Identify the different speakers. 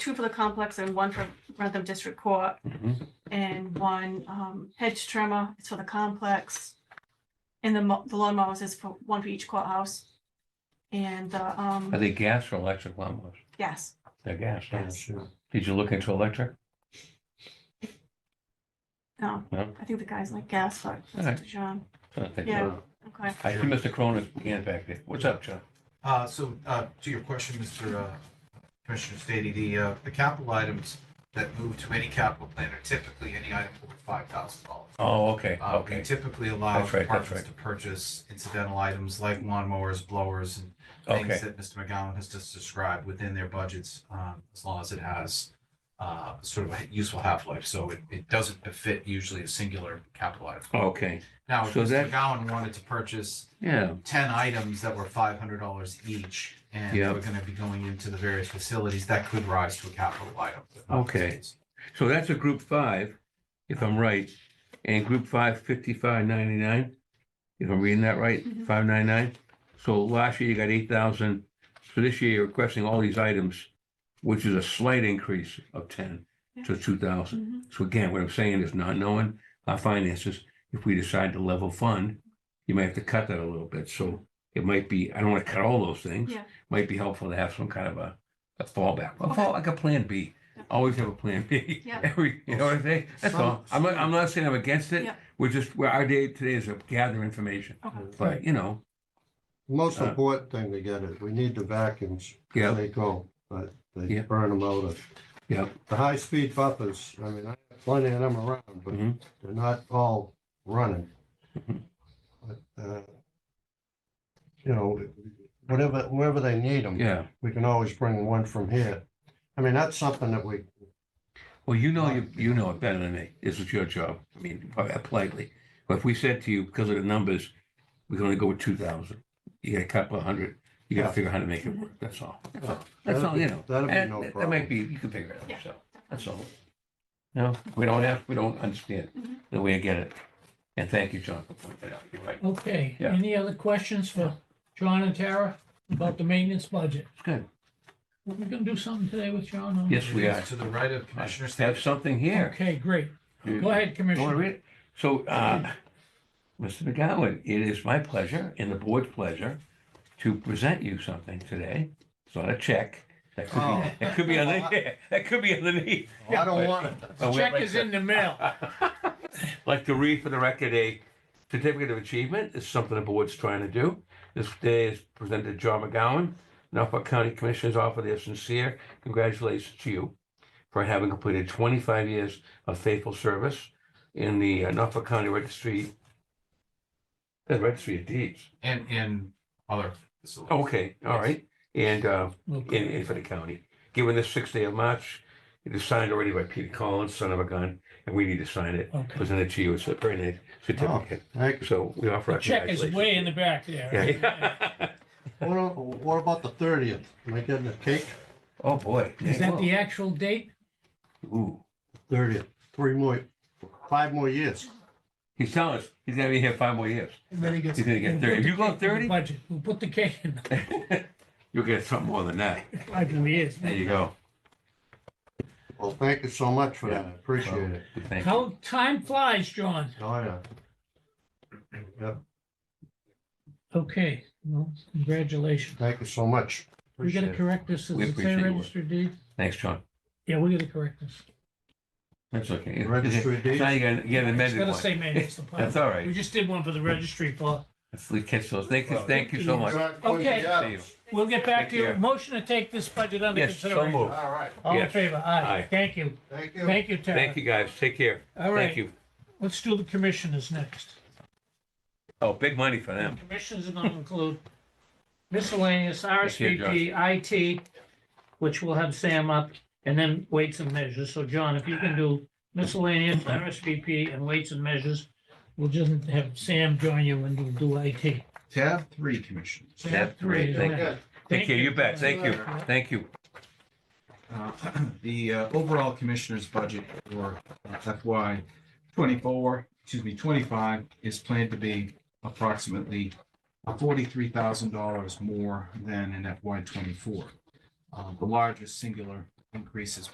Speaker 1: two for the complex and one for Rentham District Court
Speaker 2: Mhm.
Speaker 1: and one um hedge trimmer is for the complex. And the mo- the lawnmowers is for one for each courthouse. And the
Speaker 2: Are
Speaker 1: um,
Speaker 2: they gas or electric lawnmowers?
Speaker 1: yes,
Speaker 2: They're gas. huh?
Speaker 1: Yes.
Speaker 2: Did you look into electric?
Speaker 1: no,
Speaker 2: No?
Speaker 1: I think the guy's like gas, but that's
Speaker 2: Alright.
Speaker 1: up to John,
Speaker 2: I don't think so.
Speaker 1: Yeah. okay.
Speaker 2: I see Mr. Cronin's hand back there. What's up, John?
Speaker 3: Uh, so, uh, to your question, Mr. uh, Commissioner Stady, the, uh, the capital items that move to any capital plan are typically any item over five thousand dollars.
Speaker 2: Oh, okay,
Speaker 3: Uh, we
Speaker 2: okay.
Speaker 3: typically allow
Speaker 2: That's right, that's
Speaker 3: departments
Speaker 2: right.
Speaker 3: to purchase incidental items like lawnmowers, blowers, and
Speaker 2: Okay.
Speaker 3: things that Mr. McGowan has just described within their budgets, um, as long as it has, uh, sort of a useful half-life, so it, it doesn't befit usually a singular capital item.
Speaker 2: Okay,
Speaker 3: Now, if
Speaker 2: So
Speaker 3: Mr.
Speaker 2: that-
Speaker 3: McGowan wanted to purchase
Speaker 2: yeah,
Speaker 3: ten items that were five hundred dollars each, and
Speaker 2: Yeah.
Speaker 3: we're gonna be going into the various facilities, that could rise to a capital item.
Speaker 2: Okay. so that's a group five, if I'm right, and group five, fifty-five ninety-nine, if I'm reading that right,
Speaker 1: Mhm.
Speaker 2: five ninety-nine. So last year you got eight thousand, so this year you're requesting all these items, which is a slight increase of ten to two thousand.
Speaker 1: Mhm.
Speaker 2: So again, what I'm saying is not knowing our finances, if we decide to level fund, you might have to cut that a little bit. So it might be, I don't want to cut all those things.
Speaker 1: Yeah.
Speaker 2: Might be helpful to have some kind of a, a fallback, a fall, like a plan B.
Speaker 1: Yeah.
Speaker 2: Always have a plan B.
Speaker 1: Yeah.
Speaker 2: Every, you know what I'm saying? That's all. I'm not, I'm not saying I'm against it.
Speaker 1: Yeah.
Speaker 2: We're just, we're, our day today is to gather information.
Speaker 1: Okay.
Speaker 2: But, you know,
Speaker 4: Most
Speaker 2: Uh,
Speaker 4: important thing to get is, we need the vacuums.
Speaker 2: yeah,
Speaker 4: They go, but they
Speaker 2: Yeah.
Speaker 4: burn them out. of-
Speaker 2: Yeah.
Speaker 4: The high-speed buffers, I mean, I have plenty of them around, but
Speaker 2: Mhm.
Speaker 4: they're not all running.
Speaker 2: Mhm.
Speaker 4: But, uh, You know, whatever, wherever they need them,
Speaker 2: yeah.
Speaker 4: we can always bring one from here. I mean, that's something that we,
Speaker 2: Well, you know, you, you know it better than me. This is your job. I mean, politely. But if we said to you, because of the numbers, we can only go with two thousand. You got a couple of hundred. You gotta
Speaker 4: Yeah.
Speaker 2: figure out how to make it work. That's all. That's all.
Speaker 4: Yeah.
Speaker 2: That's
Speaker 4: That'd
Speaker 2: all, you
Speaker 4: be-
Speaker 2: know.
Speaker 4: that'd be
Speaker 2: And
Speaker 4: no
Speaker 2: That might be, you can figure it out
Speaker 1: Yeah.
Speaker 2: yourself. That's all. No, we don't have, we don't understand
Speaker 1: Mhm.
Speaker 2: the way I get it. And thank you, John, for pointing it out. You're right.
Speaker 5: Okay,
Speaker 2: Yeah.
Speaker 5: any other questions for John and Tara about the maintenance budget?
Speaker 2: It's good.
Speaker 5: We're gonna do something today with John on.
Speaker 2: Yes, we are.
Speaker 3: To the right of
Speaker 2: I
Speaker 3: Commissioner
Speaker 2: Have
Speaker 3: Stady.
Speaker 2: something here.
Speaker 5: Okay, great.
Speaker 2: You- You
Speaker 5: Go ahead,
Speaker 2: want to
Speaker 5: Commissioner.
Speaker 2: read it? So, uh, Mr. McGowan, it is my pleasure and the board's pleasure to present you something today. It's not a check. That could
Speaker 4: Oh.
Speaker 2: be, that could be underneath, that could be underneath.
Speaker 4: I don't want it.
Speaker 2: Oh, wait,
Speaker 5: Check
Speaker 2: wait,
Speaker 5: is in the mail.
Speaker 2: Like to read for the record, a certificate of achievement is something the board's trying to do. This day is presented to John McGowan. Norfolk County Commissioners offer their sincere congratulations to you for having completed 25 years of faithful service in the uh, Norfolk County Registry, the Registry of Deeds.
Speaker 3: And, and other facilities.
Speaker 2: Okay, all right. And uh, in,
Speaker 5: Okay.
Speaker 2: in for the county. Given this sixth day of March, it is signed already by Peter Collins, son of a gun, and we need to sign it
Speaker 5: Okay.
Speaker 2: presented to you. It's a very nice certificate.
Speaker 4: Thank you.
Speaker 2: So we offer
Speaker 5: The
Speaker 2: our
Speaker 5: check is
Speaker 2: congratulations.
Speaker 5: way in the back there.
Speaker 2: Yeah.
Speaker 4: What a- What about the thirtieth? Am I getting a cake?
Speaker 2: Oh, boy.
Speaker 5: Is that the actual date?
Speaker 2: Ooh,
Speaker 4: Thirtieth, three more, five more years.
Speaker 2: he's telling us he's gonna be here five more years.
Speaker 5: And then he gets.
Speaker 2: He's gonna get 30. If you go 30?
Speaker 5: Budget, we'll put the cake in the
Speaker 2: You'll get something more than that.
Speaker 5: five years.
Speaker 2: There you go.
Speaker 4: Well, thank you so much for that. I Appreciate it.
Speaker 2: Thank you.
Speaker 5: How time flies, John.
Speaker 4: Oh, yeah. Yep,
Speaker 5: Okay, well, congratulations.
Speaker 4: thank you so much.
Speaker 5: We gotta
Speaker 4: Appreciate it.
Speaker 5: correct this. Does
Speaker 2: We
Speaker 5: it
Speaker 2: appreciate
Speaker 5: say
Speaker 2: your work.
Speaker 5: registered deed?
Speaker 2: Thanks, John.
Speaker 5: Yeah, we gotta correct this.
Speaker 2: That's okay.
Speaker 4: Registry of deeds?
Speaker 2: Now you gotta get an
Speaker 5: It's
Speaker 2: amended
Speaker 5: gotta
Speaker 2: one.
Speaker 5: say maintenance department.
Speaker 2: That's all
Speaker 5: We
Speaker 2: right.
Speaker 5: just did one for the registry, Paul.
Speaker 2: We catch those. Thank you, thank you so much.
Speaker 5: Okay.
Speaker 2: See you.
Speaker 5: We'll get back to you.
Speaker 2: Take care.
Speaker 5: Motion to take this budget under
Speaker 2: Yes, so
Speaker 5: consideration.
Speaker 2: moved.
Speaker 4: All right,
Speaker 5: All in
Speaker 2: Yes.
Speaker 5: favor?
Speaker 2: Aye.
Speaker 5: Aye. Thank you.
Speaker 4: thank you.
Speaker 5: Thank you, Tara.
Speaker 2: Thank you, guys. Take care.
Speaker 5: All
Speaker 2: Thank
Speaker 5: right,
Speaker 2: you.
Speaker 5: let's do the commissioners next.
Speaker 2: Oh, big money for
Speaker 5: The
Speaker 2: them.
Speaker 5: commissioners are gonna include miscellaneous, RSVP, IT, which we'll have Sam up, and then weights and measures. So John, if you can do miscellaneous, RSVP, and weights and measures, we'll just have Sam join you and we'll do IT.
Speaker 3: Tab three, commissioners.
Speaker 5: Sam,
Speaker 2: Tab three,
Speaker 5: go
Speaker 2: thank
Speaker 5: ahead.
Speaker 4: you.
Speaker 2: Take care. You bet. Thank you.
Speaker 5: Yeah.
Speaker 2: Thank you.
Speaker 3: Uh, The uh, overall commissioner's budget for FY twenty-four, excuse me, twenty-five is planned to be approximately forty-three thousand dollars more than in FY twenty-four. Uh, The largest singular increases